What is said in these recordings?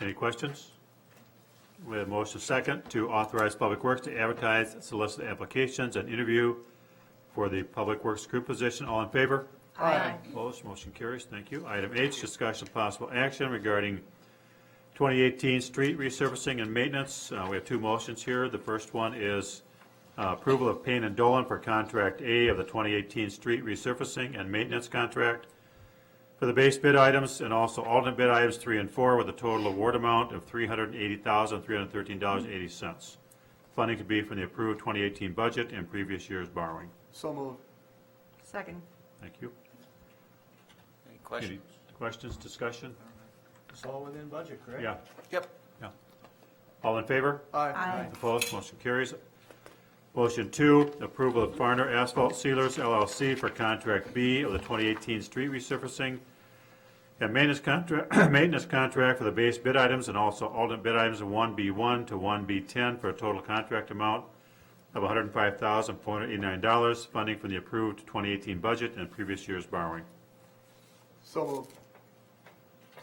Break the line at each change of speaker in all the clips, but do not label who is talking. Any questions? We have motion second to authorize Public Works to advertise, solicit applications, and interview for the Public Works Group position. All in favor?
Aye.
Opposed, motion carries. Thank you. Item H, discussion of possible action regarding 2018 street resurfacing and maintenance. Uh, We have two motions here. The first one is uh, approval of Payne and Dolan for Contract A of the 2018 street resurfacing and maintenance contract for the base bid items and also alternate bid items three and four with a total award amount of $380,313.80. Funding to be from the approved 2018 budget and previous year's borrowing.
So moved.
Second.
Thank you.
Any
Any
questions?
questions, discussion?
It's all within budget, correct?
Yeah,
Yep.
yeah. All in favor?
Aye.
Opposed, motion carries. Motion two, approval of Farner Asphalt Sealers LLC for contract B of the 2018 street resurfacing and maintenance contract, maintenance contract for the base bid items and also alternate bid items of 1B1 to 1B10 for a total contract amount of $105,489, funding from the approved 2018 budget and previous year's borrowing.
So moved.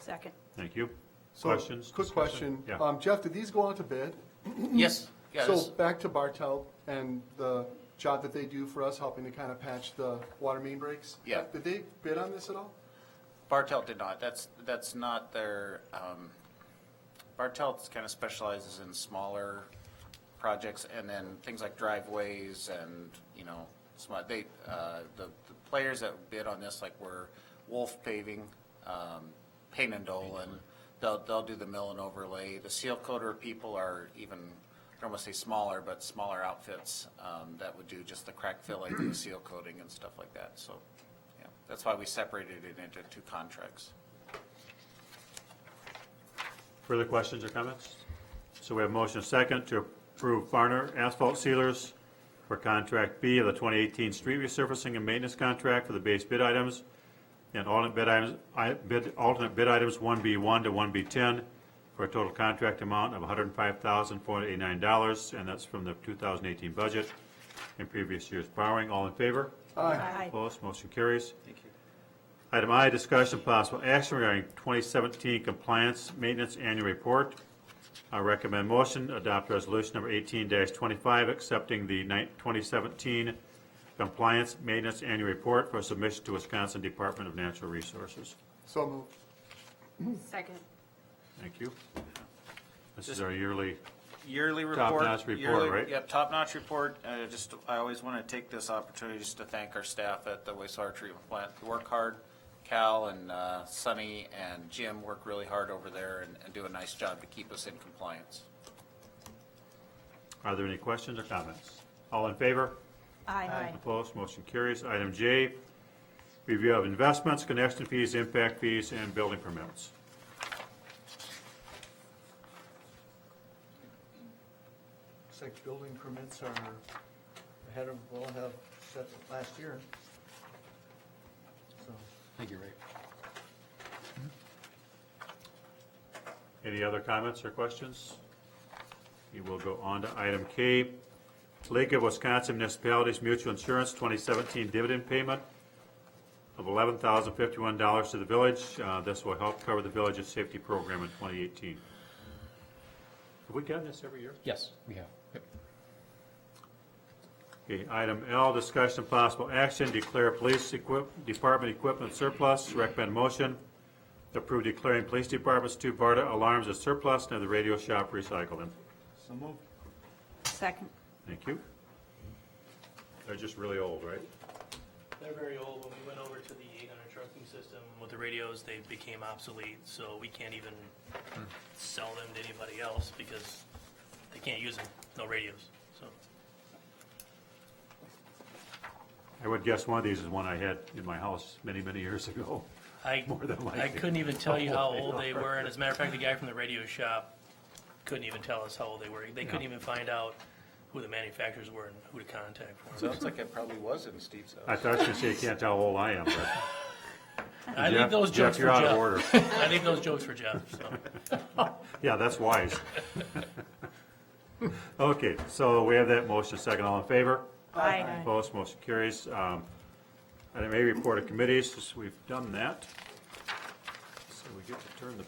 Second.
Thank you.
So,
Questions?
Quick
discussion?
question.
Yeah.
Um, Jeff, did these go out to bid?
Yes, yeah,
So
this-
back to Bartel and the job that they do for us, helping to kind of patch the water main breaks?
Yeah.
Did they bid on this at all?
Bartelt did not, that's, that's not their, um, Bartelt kind of specializes in smaller projects and then things like driveways and, you know, small, they, uh, the, the players that bid on this, like were Wolf Paving, um, Payne and Dolan, they'll, they'll do the mill and overlay. The seal coater people are even, I don't want to say smaller, but smaller outfits, um, that would do just the crack filling and the seal coating and stuff like that, so. Yeah, that's why we separated it into two contracts.
Further questions or comments? So we have motion second to approve Farner Asphalt Sealers for contract B of the 2018 street resurfacing and maintenance contract for the base bid items and alternate bid items, I- bid, alternate bid items 1B1 to 1B10 for a total contract amount of $105,489, and that's from the 2018 budget and previous year's borrowing. All in favor?
Aye.
Opposed, motion carries. Thank you. Item I, discussion possible action regarding 2017 compliance maintenance annual report. I recommend motion, adopt resolution number 18-25, accepting the ni- 2017 compliance maintenance annual report for submission to Wisconsin Department of Natural Resources.
So moved.
Second.
Thank you. This is our yearly,
Yearly report.
Top-notch report,
yearly-
right?
Yep, top-notch report. Uh, just, I always want to take this opportunity just to thank our staff at the wastewater treatment plant. They work hard. Cal and, uh, Sunny and Jim work really hard over there and, and do a nice job to keep us in compliance.
are there any questions or comments? All in favor?
Aye.
Opposed, motion carries. Item J, review of investments, connection fees, impact fees, and building permits.
Looks like building permits are ahead of, well, have set last year. So,
Thank you, Ray.
Any other comments or questions? We will go on to item K, League of Wisconsin Municipalities Mutual Insurance 2017 dividend payment of $11,051 to the village. Uh, This will help cover the village's safety program in 2018. Have we gotten this every year?
Yes, we have. Yep.
Okay, item L, discussion of possible action, declare police equip, department equipment surplus, recommend motion, approve declaring police department's two BARDA alarms as surplus and have the radio shop recycle them.
so moved.
Second.
Thank you. They're just really old, right?
They're very old. When we went over to the 800 trucking system with the radios, they became obsolete, so we can't even sell them to anybody else because they can't use them, no radios, so.
I would guess one of these is one I had in my house many, many years ago.
I,
More than likely.
I couldn't even tell you
How
how
old
old
they
they were, and as a matter of fact, the guy from the radio shop couldn't even tell us how old they were. They couldn't even find out who the manufacturers were and who to contact for them.
Sounds like it probably was in Steve's house.
I thought you were gonna say you can't tell how old I am, but.
I leave those
Jeff,
jokes
you're
for
out of
Jeff.
order.
I leave those jokes for Jeff, so.
Yeah, that's wise. Okay, so we have that motion, second, all in favor?
Aye.
Opposed, motion carries. Um, Item A, report of committees, Just- we've done that. So we get to turn the